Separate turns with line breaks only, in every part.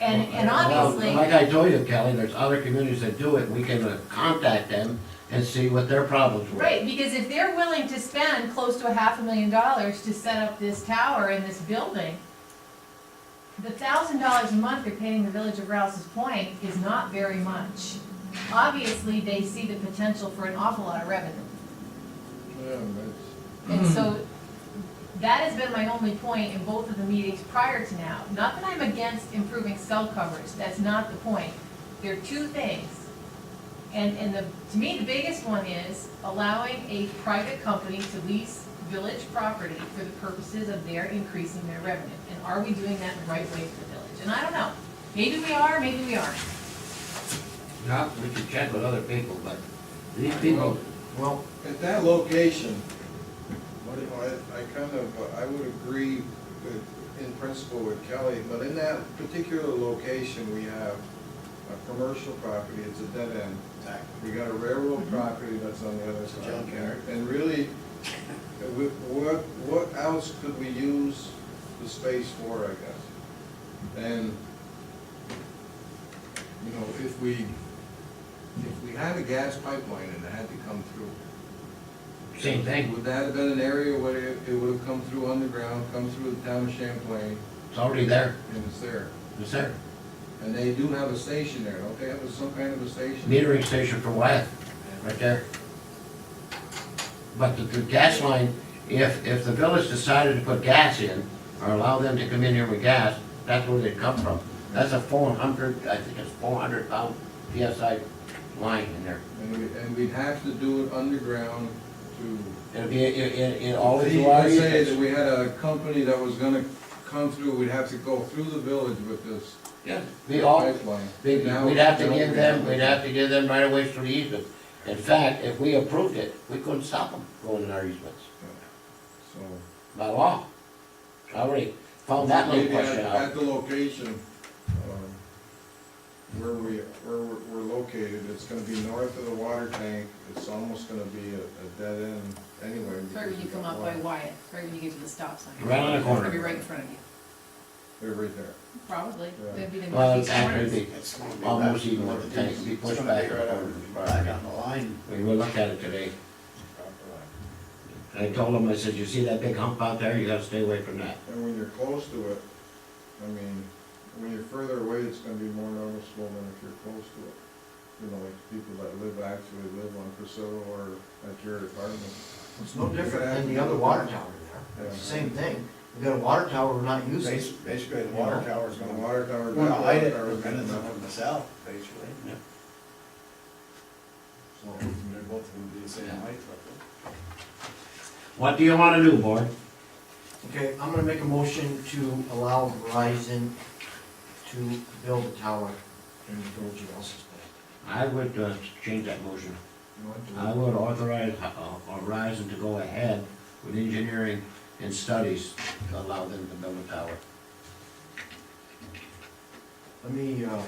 And, and
Well, Like
obviously,
I told you, Kelly, there's other communities that do it, we can uh, contact them and see what their problems were.
right, because if they're willing to spend close to a half a million dollars to set up this tower and this building, the thousand dollars a month they're paying the village of Rouse's Point is not very much. Obviously, they see the potential for an awful lot of revenue.
Yeah, that's,
And so that has been my only point in both of the meetings prior to now. Not that I'm against improving cell coverage, that's not the point. There are two things. And, and the, to me, the biggest one is allowing a private company to lease village property for the purposes of their increasing their revenue. And are we doing that the right way for the village? And I don't know. Maybe we are, maybe we aren't.
Not, we can check with other people, but these people,
well, at that location, what, do- I, I kind of, uh, I would agree with, in principle with Kelly, but in that particular location, we have a commercial property, it's a dead end. We got a railroad property that's on the other
It's a
side.
junkyard.
And really, uh, we- what, what else could we use the space for, I guess? And, you know, if we, if we had a gas pipeline and it had to come through,
same thing,
would that have been an area where it it would have come through underground, come through the town of Champlain,
it's already there,
and it's there?
it's there.
And they do have a station there, don't they have some kind of a station?
Metering station for Wyeth, right there. But the, the gas line, if, if the village decided to put gas in, or allow them to come in here with gas, that's where they'd come from. That's a four hundred, I think it's four hundred pound PSI line in there.
And we, and we'd have to do it underground to.
It'd be, it, it, it always
See,
was.
let's say that we had a company that was gonna come through, we'd have to go through the village with this
Yeah. We all,
pipeline.
we-
Now-
we'd have to
now
give
we
them, we'd have to give them right away ways through the easement. In fact, if we approved it, we couldn't stop them going in our easements,
So.
by law. I already found that little
maybe at-
question uh,
At
out.
the location, um, where we, where we're, we're located, it's gonna be north of the water tank, it's almost gonna be a, a dead end anyway.
It's Right when you come up by Wyatt, it's right when you get to the stop sign.
Right on the
It's
corner.
gonna be right in front of you,
They're right there.
probably.
Yeah.
That'd be the
Well,
northeast corner.
after it'd be,
It's gonna be
Almost
back-
even with the tank, be pushed
It's gonna be
back.
right up- Back on the line.
we will look at it today. I told them, I said, you see that big hump out there, you gotta stay away from that.
And when you're close to it, I mean, when you're further away, it's gonna be more noticeable than if you're close to it. You know, like people that live, actually live on Priscilla or at your apartment.
It's no different than the other water tower there, it's the same thing, we got a water tower we're not using.
Bas- Basically, the water tower's
The
gonna water,
water tower.
gonna hide it
tower
from
is gonna-
minutes of itself, basically.
Yeah.
So they're both gonna be the same height, roughly.
What do you wanna do, board?
Okay, I'm gonna make a motion to allow Verizon to build a tower in the village of Rouse's Bay.
I would, uh, change that motion.
You want to-
I would authorize uh, Horizon to go ahead with engineering and studies to allow them to build a tower.
Let me, uh,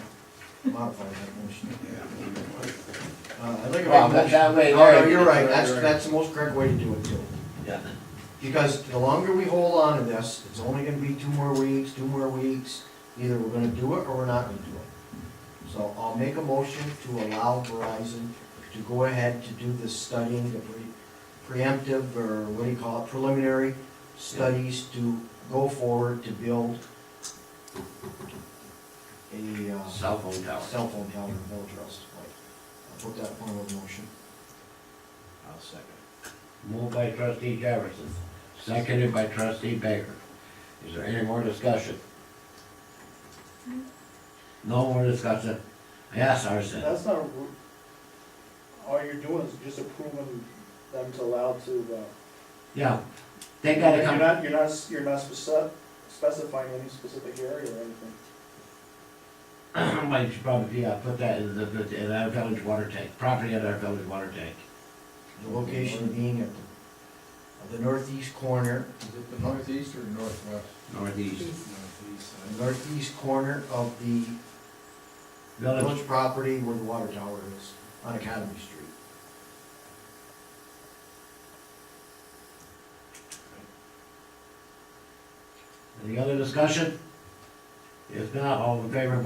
modify that motion. Uh, I'd like to make
Well,
a
that-
motion.
that
Oh,
way
No, no,
there-
you're right,
Right,
that's,
right.
that's the most correct way to do it, too.
Yeah.
Because the longer we hold on to this, it's only gonna be two more weeks, two more weeks, either we're gonna do it or we're not gonna do it. So I'll make a motion to allow Verizon to go ahead to do the studying, the pre- preemptive, or what do you call it, preliminary studies to go forward to build a, uh,
Cell phone tower.
cell phone tower in Village Rest. I'll put that in form of a motion.
I'll second.
Moved by trustee Jefferson, seconded by trustee Baker. Is there any more discussion? No more discussion? Yes, Arson?
That's not, a ru- all you're doing is just approving them to allow to, uh.
Yeah, they gotta
You're
come,
not, you're not, you're not speci- specifying any specific area or anything.
might should probably, yeah, put that in the, in our village water tank, property at our village water tank.
The location being at the, at the northeast corner
Is it the northeast or northwest?
Northeast,
Northeast side.
northeast corner of the
village,
village property where the water tower is on Academy Street.
any other discussion? If not, all in favor, vote